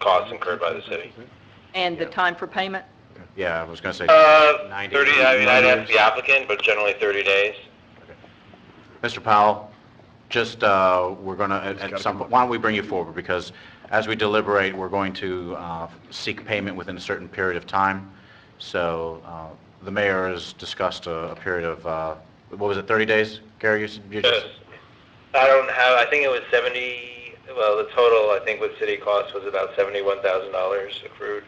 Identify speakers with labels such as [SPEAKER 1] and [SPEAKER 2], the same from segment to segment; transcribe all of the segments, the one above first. [SPEAKER 1] costs incurred by the city.
[SPEAKER 2] And the time for payment?
[SPEAKER 3] Yeah, I was gonna say,
[SPEAKER 1] Uh,
[SPEAKER 3] 90
[SPEAKER 1] thirty, I mean, I'd ask
[SPEAKER 3] days.
[SPEAKER 1] the applicant, but generally thirty days.
[SPEAKER 3] Mr. Powell, just, uh, we're gonna, at- at some, point- why don't we bring you forward? Because as we deliberate, we're going to uh, seek payment within a certain period of time. So uh, the mayor has discussed a a period of, uh, what was it, 30 days, Gary? you s- you
[SPEAKER 1] Yes.
[SPEAKER 3] just-
[SPEAKER 1] I don't have, I think it was seventy, well, the total, I think with city costs was about seventy-one thousand dollars accrued.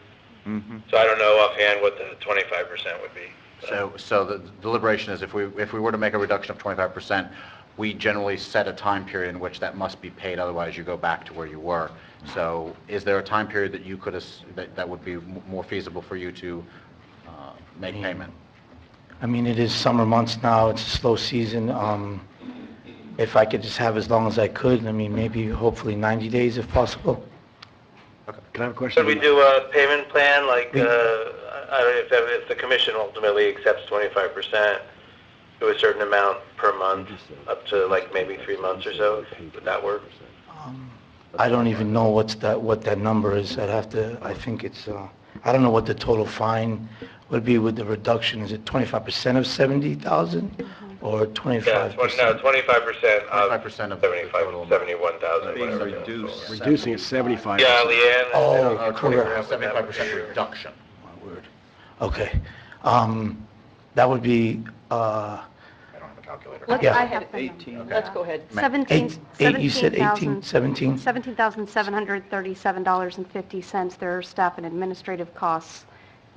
[SPEAKER 1] So I don't know offhand what the twenty-five percent would be. but-
[SPEAKER 3] So, so the deliberation is if we, if we were to make a reduction of 25%, we generally set a time period in which that must be paid, otherwise you go back to where you were. So is there a time period that you could, as- that, that would be m- more feasible for you to uh, make payment?
[SPEAKER 4] I mean, it is summer months now, it's a slow season. Um, If I could just have as long as I could, I mean, maybe hopefully 90 days if possible.
[SPEAKER 5] Can I have a question?
[SPEAKER 1] Should we do a payment plan, like, uh,
[SPEAKER 4] Yeah.
[SPEAKER 1] I don't know if, that- if the commission ultimately accepts twenty-five percent to a certain amount per month, up to like maybe three months or so, would that work?
[SPEAKER 4] Um, I don't even know what's that, what that number is. I'd have to, I think it's, uh, I don't know what the total fine would be with the reduction. Is it 25% of 70,000 or 25%?
[SPEAKER 1] Yeah, twenty, no, twenty-five percent of
[SPEAKER 3] 25% of the total
[SPEAKER 1] seventy-five,
[SPEAKER 3] amount.
[SPEAKER 1] seventy-one thousand,
[SPEAKER 6] Being
[SPEAKER 1] whatever.
[SPEAKER 6] reduced.
[SPEAKER 5] Reducing it 75.
[SPEAKER 1] Yeah, Leanne. I don't-
[SPEAKER 4] Oh,
[SPEAKER 3] Uh,
[SPEAKER 4] correct.
[SPEAKER 3] 75% reduction.
[SPEAKER 4] My word. Okay. Um, That would be, uh,
[SPEAKER 3] I don't have a calculator.
[SPEAKER 7] Let's,
[SPEAKER 4] Yeah.
[SPEAKER 7] I have the
[SPEAKER 6] Eighteen.
[SPEAKER 7] number.
[SPEAKER 2] Let's go ahead.
[SPEAKER 7] Seventeen,
[SPEAKER 4] eight, eight, you said 18,
[SPEAKER 7] seventeen thousand,
[SPEAKER 4] 17?
[SPEAKER 7] seventeen thousand seven hundred thirty-seven dollars and fifty cents. There are staff and administrative costs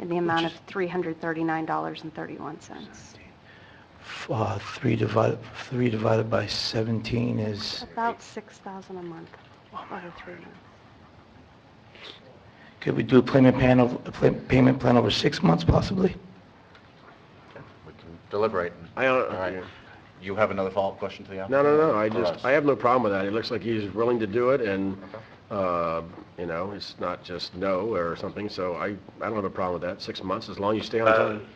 [SPEAKER 7] in the amount of three hundred thirty-nine dollars and thirty-one cents.
[SPEAKER 4] F- uh, 3 divided, 3 divided by 17 is,
[SPEAKER 7] About six thousand a month over three months.
[SPEAKER 4] could we do a payment plan, ov- a pla- payment plan over six months possibly?
[SPEAKER 3] We can deliberate.
[SPEAKER 5] I don't-
[SPEAKER 3] All right. You have another follow-up question to the
[SPEAKER 5] No,
[SPEAKER 3] applicant?
[SPEAKER 5] no, no, I
[SPEAKER 3] Or
[SPEAKER 5] just,
[SPEAKER 3] us?
[SPEAKER 5] I have no problem with that. It looks like he's willing to do it and, uh, you know, it's not just no or something, so I, I don't have a problem with that. Six months, as long as you stay on
[SPEAKER 1] Uh,
[SPEAKER 5] time.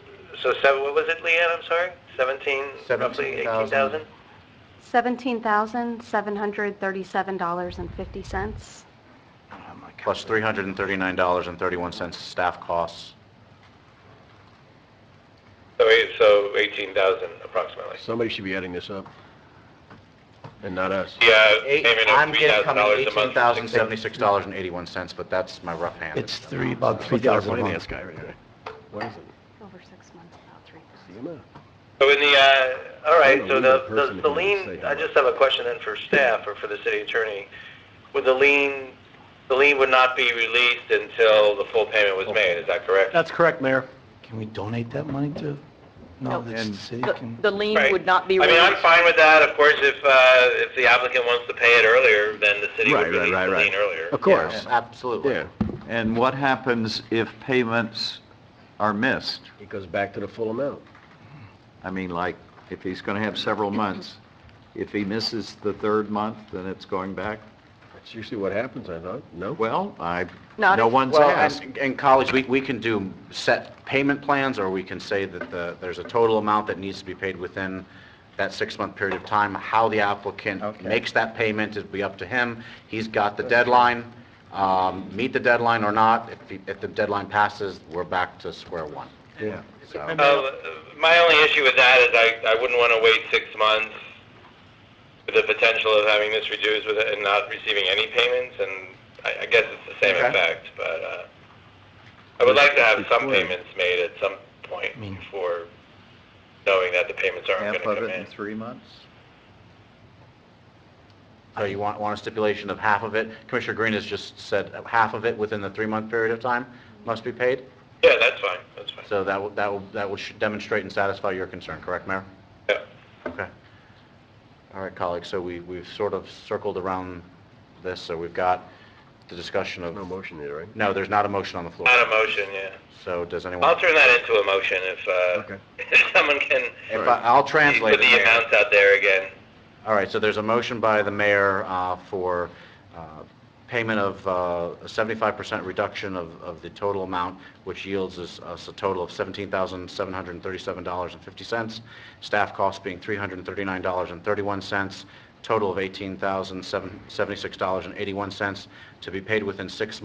[SPEAKER 1] So seven, what was it, Leanne, I'm sorry? Seventeen, roughly eighteen
[SPEAKER 3] 17,000.
[SPEAKER 1] thousand?
[SPEAKER 7] Seventeen thousand seven hundred thirty-seven dollars and fifty cents.
[SPEAKER 3] Oh Plus $339.31 staff costs.
[SPEAKER 1] So eight, so eighteen thousand approximately.
[SPEAKER 5] Somebody should be adding this up and not us.
[SPEAKER 1] Yeah,
[SPEAKER 3] Eight-
[SPEAKER 1] payment
[SPEAKER 3] I'm
[SPEAKER 1] of three thousand
[SPEAKER 3] getting coming
[SPEAKER 1] dollars a month.
[SPEAKER 3] eighteen thousand seventy-six dollars and eighty-one cents, but that's my rough hand.
[SPEAKER 4] It's three, about
[SPEAKER 5] Look at our
[SPEAKER 4] 3,000 a
[SPEAKER 5] finance
[SPEAKER 4] month.
[SPEAKER 5] guy right there. What is it?
[SPEAKER 7] Over six months, about three thousand.
[SPEAKER 5] CMO.
[SPEAKER 1] So in the, uh, all right,
[SPEAKER 5] I'm a
[SPEAKER 1] so
[SPEAKER 5] legal
[SPEAKER 1] the,
[SPEAKER 5] person
[SPEAKER 1] the-
[SPEAKER 5] if
[SPEAKER 1] the
[SPEAKER 5] you don't
[SPEAKER 1] lien,
[SPEAKER 5] say
[SPEAKER 1] I
[SPEAKER 5] that.
[SPEAKER 1] just have a question then for staff or for the city attorney. Would the lien, the lien would not be released until the full payment was made, is that correct?
[SPEAKER 6] That's correct, Mayor.
[SPEAKER 4] Can we donate that money to? No,
[SPEAKER 2] No.
[SPEAKER 4] that's the city
[SPEAKER 2] The-
[SPEAKER 4] can,
[SPEAKER 2] The lien
[SPEAKER 1] Right.
[SPEAKER 2] would not be
[SPEAKER 1] I mean, I'm
[SPEAKER 2] released.
[SPEAKER 1] fine with that, of course, if, uh, if the applicant wants to pay it earlier, then the city would
[SPEAKER 6] Right, right,
[SPEAKER 1] release
[SPEAKER 6] right,
[SPEAKER 1] the
[SPEAKER 6] right.
[SPEAKER 1] lien earlier.
[SPEAKER 5] Of course,
[SPEAKER 3] Yeah, Absolutely.
[SPEAKER 5] yeah.
[SPEAKER 6] And what happens if payments are missed?
[SPEAKER 5] It goes back to the full amount.
[SPEAKER 6] I mean, like, if he's going to have several months, if he misses the third month, then it's going back?
[SPEAKER 5] That's usually what happens, I thought, no?
[SPEAKER 6] Well, I,
[SPEAKER 2] Not
[SPEAKER 6] no
[SPEAKER 2] if-
[SPEAKER 6] one's
[SPEAKER 3] Well,
[SPEAKER 6] asked.
[SPEAKER 3] and, and college, we, we can do set payment plans, or we can say that the, there's a total amount that needs to be paid within that six-month period of time. How the applicant
[SPEAKER 6] Okay.
[SPEAKER 3] makes that payment is be up to him. He's got the deadline, um, meet the deadline or not. If, he- if the deadline passes, we're back to square one.
[SPEAKER 5] Yeah.
[SPEAKER 3] So,
[SPEAKER 1] Uh, My only issue with that is I, I wouldn't want to wait six months with the potential of having this reduced with, and not receiving any payments, and I, I guess it's the same
[SPEAKER 3] Okay.
[SPEAKER 1] effect, but, uh, I would like to have some
[SPEAKER 5] Before.
[SPEAKER 1] payments made at some point
[SPEAKER 4] mean-
[SPEAKER 1] before knowing that the payments aren't
[SPEAKER 6] Half
[SPEAKER 1] going to
[SPEAKER 6] of
[SPEAKER 1] come
[SPEAKER 6] it in
[SPEAKER 1] in.
[SPEAKER 6] three months?
[SPEAKER 3] so you want, want a stipulation of half of it? Commissioner Green has just said half of it within the three-month period of time must be paid?
[SPEAKER 1] Yeah, that's fine, that's fine.
[SPEAKER 3] So that will, that will, that will should demonstrate and satisfy your concern, correct, Mayor?
[SPEAKER 1] Yeah.
[SPEAKER 3] Okay. All right, colleagues, so we, we've sort of circled around this, so we've got the discussion of,
[SPEAKER 5] No motion eh? there, right?
[SPEAKER 3] no, there's not a motion on the floor.
[SPEAKER 1] Not a motion, yeah.
[SPEAKER 3] So does anyone?
[SPEAKER 1] I'll turn that into a motion if, uh,
[SPEAKER 5] Okay.
[SPEAKER 1] if someone can
[SPEAKER 3] If I, I'll translate.
[SPEAKER 1] put
[SPEAKER 3] it,
[SPEAKER 1] the
[SPEAKER 3] Mayor.
[SPEAKER 1] amounts out there again.
[SPEAKER 3] All right, so there's a motion by the mayor uh, for uh, payment of uh, a 75% reduction of of the total amount, which yields us us a total of $17,737.50, staff costs being $339.31, total of $18,076.81, to be paid within six months.